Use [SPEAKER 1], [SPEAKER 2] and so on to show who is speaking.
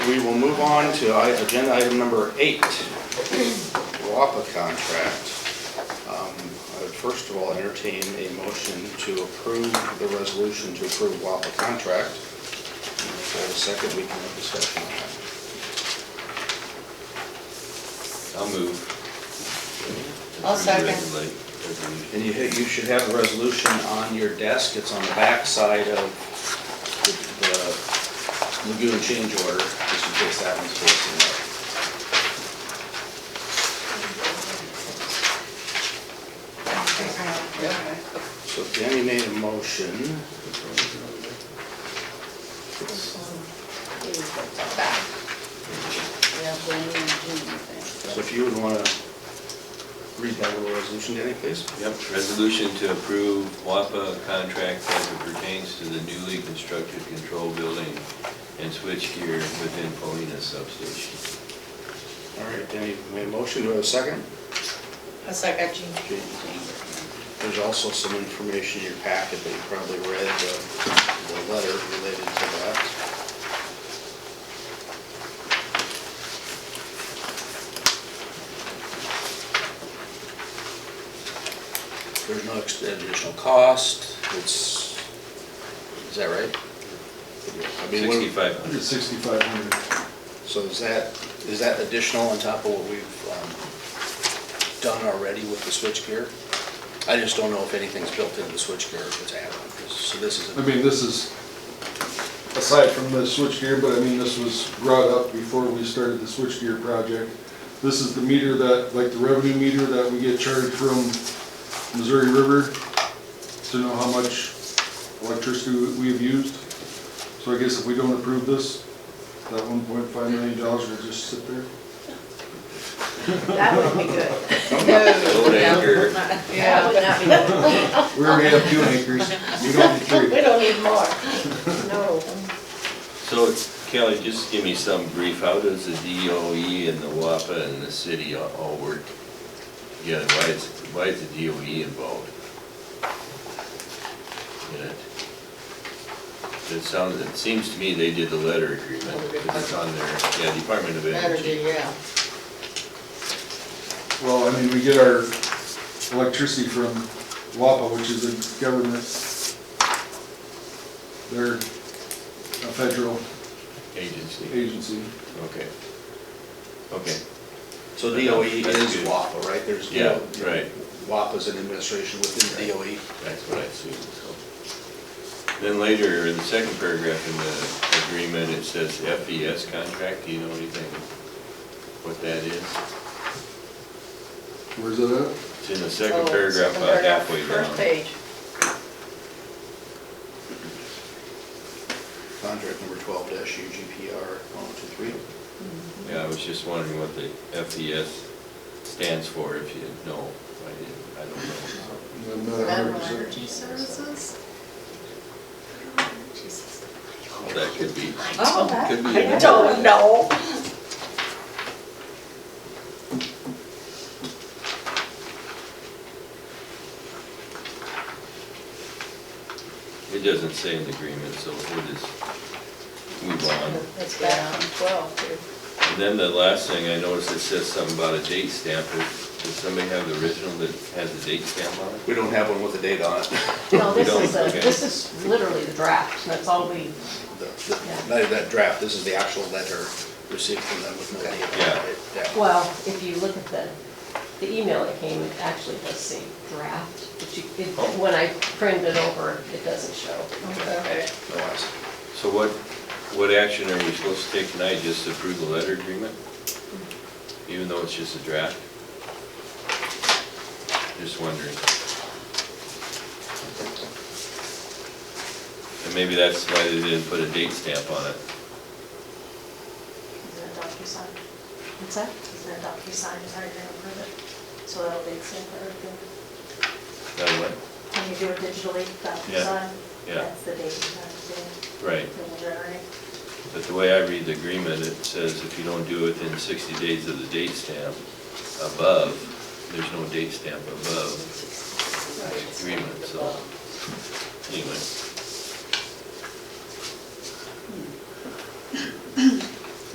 [SPEAKER 1] We will move on to i- agenda item number eight, WAPA contract. Um, I would First of all, entertain a motion to approve the resolution to approve WAPA contract. If I have a second, we can have discussion on that.
[SPEAKER 2] I'll move.
[SPEAKER 3] I'll second.
[SPEAKER 2] Resolution.
[SPEAKER 1] And you, ha- you should have the resolution on your desk, it's on the back side of the the lagoon change order, just in case that one's facing up. So Jenny made a motion. So if you would want to read that little resolution, Jenny, please?
[SPEAKER 2] Yep, resolution to approve WAPA contract as it pertains to the newly constructed control building and switchgear within Polina substation.
[SPEAKER 1] All right, Jenny made a motion, do I have a second?
[SPEAKER 3] A second, Jean.
[SPEAKER 1] There's also some information in your packet that you probably read, the, the letter related to that. There's no ex- additional cost, it's, is that right? I mean, what-
[SPEAKER 2] Sixty-five hundred.
[SPEAKER 4] Hundred sixty-five hundred.
[SPEAKER 1] So is that, is that additional on top of what we've um, done already with the switchgear? I just don't know if anything's built into the switchgear, if it's added, so this is,
[SPEAKER 4] I mean, this is, aside from the switchgear, but I mean, this was brought up before we started the switchgear project. This is the meter that, like the revenue meter that we get charged from Missouri River to know how much electricity we have used. So I guess if we don't approve this, that one point five million dollars will just sit there.
[SPEAKER 5] That would be good.
[SPEAKER 2] Old anchor.
[SPEAKER 5] That
[SPEAKER 3] Yeah.
[SPEAKER 5] would not be good.
[SPEAKER 4] We already have two acres, we don't need three.
[SPEAKER 5] We don't need more. No.
[SPEAKER 2] So Kelly, just give me some brief, how does the DOE and the WAPA and the city all- all work together? Why is, why is the DOE involved? in it? It sounds, it seems to me they did the letter agreement, 'cause it's on their, yeah, Department of
[SPEAKER 3] Energy,
[SPEAKER 2] Energy.
[SPEAKER 3] yeah.
[SPEAKER 4] Well, I mean, we get our electricity from WAPA, which is a government, they're a federal
[SPEAKER 2] Agency,
[SPEAKER 4] agency.
[SPEAKER 2] okay. Okay,
[SPEAKER 1] so DOE is WAPA, right? There's E.
[SPEAKER 2] Yeah, right.
[SPEAKER 1] WAPA's an administration within DOE.
[SPEAKER 2] That's what I assumed, so. Then later, in the second paragraph in the agreement, it says FES contract, do you know anything what that is?
[SPEAKER 4] Where's that at?
[SPEAKER 2] It's in the second
[SPEAKER 3] Oh,
[SPEAKER 2] paragraph,
[SPEAKER 3] second
[SPEAKER 2] about
[SPEAKER 3] paragraph,
[SPEAKER 2] halfway
[SPEAKER 3] First
[SPEAKER 2] down.
[SPEAKER 3] page.
[SPEAKER 1] Contract number twelve dash UGPR one oh two three.
[SPEAKER 2] Yeah, I was just wondering what the FES stands for, if you know, I didn't, I don't know.
[SPEAKER 4] I'm
[SPEAKER 5] Oh,
[SPEAKER 4] not a hundred percent.
[SPEAKER 6] services?
[SPEAKER 2] Well, That could be,
[SPEAKER 3] Oh,
[SPEAKER 2] could be.
[SPEAKER 3] I
[SPEAKER 2] a number
[SPEAKER 3] don't
[SPEAKER 2] of
[SPEAKER 3] know.
[SPEAKER 2] that. It doesn't say in the agreement, so we'll just move on.
[SPEAKER 3] It's back on twelve here.
[SPEAKER 2] And then the last thing I noticed, it says something about a date stamp. Does does somebody have the original that has the date stamp on it?
[SPEAKER 1] We don't have one with a date on it.
[SPEAKER 5] No, this
[SPEAKER 2] don't,
[SPEAKER 5] is, a-
[SPEAKER 2] okay.
[SPEAKER 5] this is literally the draft. That's all we,
[SPEAKER 1] The- the- Not that draft, this is the actual letter received from them with no date on it. Yeah.
[SPEAKER 5] well, if you look at the, the email that came, it actually does say draft. But you, it-
[SPEAKER 2] Oh.
[SPEAKER 5] when I print it over, it doesn't show.
[SPEAKER 3] Okay.
[SPEAKER 1] No, I see.
[SPEAKER 2] So what, what action are we supposed to take tonight? Just to approve the letter agreement? Even though it's just a draft? Just wondering. And maybe that's why they didn't put a date stamp on it.
[SPEAKER 6] Is that DocuSign?
[SPEAKER 5] What's that?
[SPEAKER 6] Is that DocuSign, is how you're gonna approve it? So that'll be the same for everything.
[SPEAKER 2] That what?
[SPEAKER 6] When you do it digitally, DocuSign,
[SPEAKER 2] yeah.
[SPEAKER 6] that's the date you have
[SPEAKER 2] Right.
[SPEAKER 6] to do, it. it'll generate.
[SPEAKER 2] But the way I read the agreement, it says if you don't do it within 60 days of the date stamp above, there's no date stamp above this agreement, so anyway.